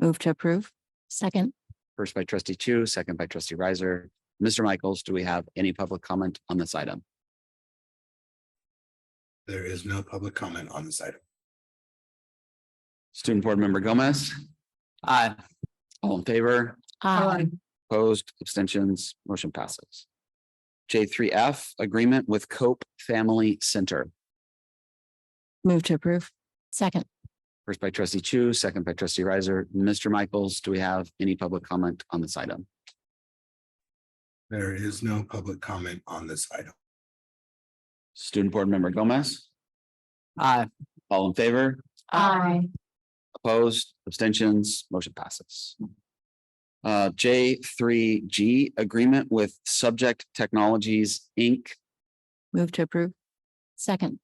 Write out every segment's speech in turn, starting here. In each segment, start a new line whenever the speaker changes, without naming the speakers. Move to approve.
Second.
First by trustee Chu, second by trustee Riser. Mr. Michaels, do we have any public comment on this item?
There is no public comment on this item.
Student Board Member Gomez? Aye. All in favor?
Aye.
Opposed, abstentions, motion passes. J three F, agreement with Cope Family Center.
Move to approve.
Second.
First by trustee Chu, second by trustee Riser. Mr. Michaels, do we have any public comment on this item?
There is no public comment on this item.
Student Board Member Gomez? Aye. All in favor?
Aye.
Opposed, abstentions, motion passes. Uh, J three G, agreement with Subject Technologies, Inc.
Move to approve.
Second.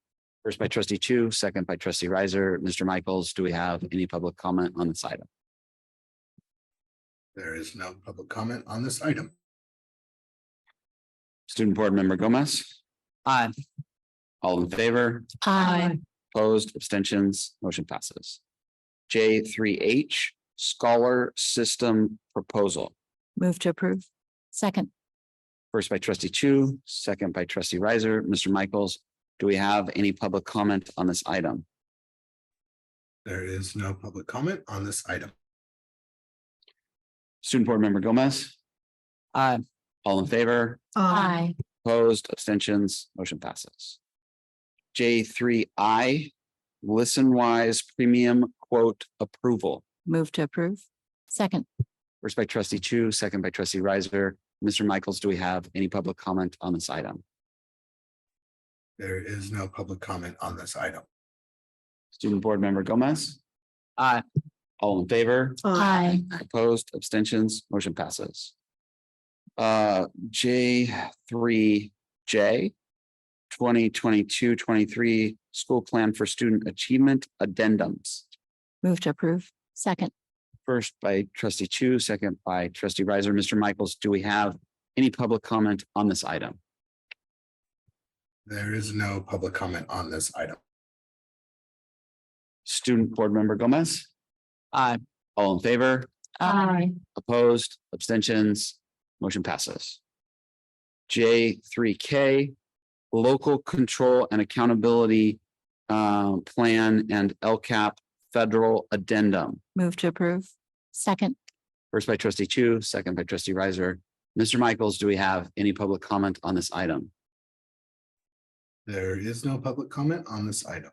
First by trustee Chu, second by trustee Riser. Mr. Michaels, do we have any public comment on this item?
There is no public comment on this item.
Student Board Member Gomez? Aye. All in favor?
Aye.
Opposed, abstentions, motion passes. J three H, Scholar System Proposal.
Move to approve.
Second.
First by trustee Chu, second by trustee Riser. Mr. Michaels, do we have any public comment on this item?
There is no public comment on this item.
Student Board Member Gomez? Aye. All in favor?
Aye.
Opposed, abstentions, motion passes. J three I, Listen Wise Premium Quote Approval.
Move to approve.
Second.
First by trustee Chu, second by trustee Riser. Mr. Michaels, do we have any public comment on this item?
There is no public comment on this item.
Student Board Member Gomez? Aye. All in favor?
Aye.
Opposed, abstentions, motion passes. Uh, J three J. 2022-23 school plan for student achievement addendums.
Move to approve.
Second.
First by trustee Chu, second by trustee Riser. Mr. Michaels, do we have any public comment on this item?
There is no public comment on this item.
Student board member Gomez? Aye. All in favor?
Aye.
Opposed, abstentions, motion passes. J three K, local control and accountability uh, plan and LCAP federal addendum.
Move to approve.
Second.
First by trustee Chu, second by trustee Riser. Mr. Michaels, do we have any public comment on this item?
There is no public comment on this item.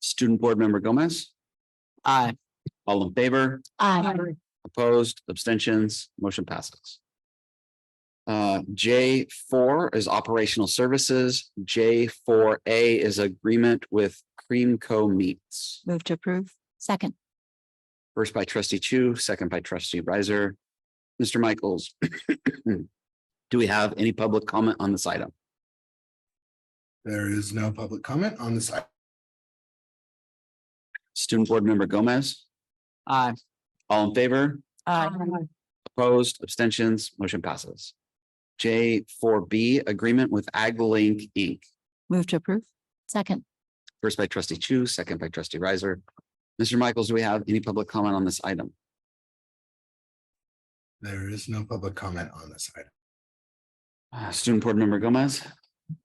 Student Board Member Gomez? Aye. All in favor?
Aye.
Opposed, abstentions, motion passes. Uh, J four is operational services. J four A is agreement with Cream Co Meats.
Move to approve.
Second.
First by trustee Chu, second by trustee Riser. Mr. Michaels. Do we have any public comment on this item?
There is no public comment on this item.
Student Board Member Gomez? Aye. All in favor?
Aye.
Opposed, abstentions, motion passes. J four B, agreement with AgLink Inc.
Move to approve.
Second.
First by trustee Chu, second by trustee Riser. Mr. Michaels, do we have any public comment on this item?
There is no public comment on this item.
Uh, Student Board Member Gomez?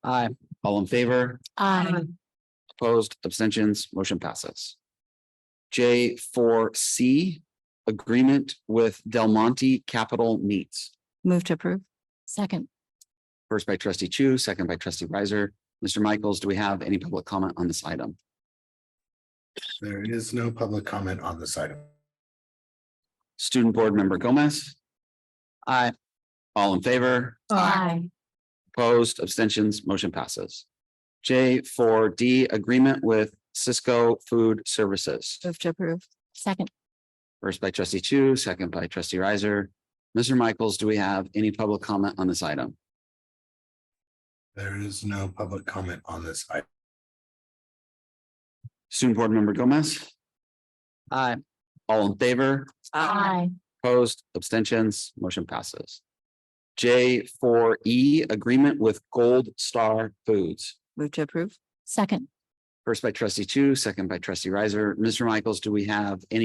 Aye. All in favor?
Aye.
Opposed, abstentions, motion passes. J four C, agreement with Del Monte Capital Meats.
Move to approve.
Second.
First by trustee Chu, second by trustee Riser. Mr. Michaels, do we have any public comment on this item?
There is no public comment on this item.
Student Board Member Gomez? Aye. All in favor?
Aye.
Opposed, abstentions, motion passes. J four D, agreement with Cisco Food Services.
Move to approve.
Second.
First by trustee Chu, second by trustee Riser. Mr. Michaels, do we have any public comment on this item?
There is no public comment on this item.
Student Board Member Gomez? Aye. All in favor?
Aye.
Opposed, abstentions, motion passes. J four E, agreement with Gold Star Foods.
Move to approve.
Second.
First by trustee Chu, second by trustee Riser. Mr. Michaels, do we have any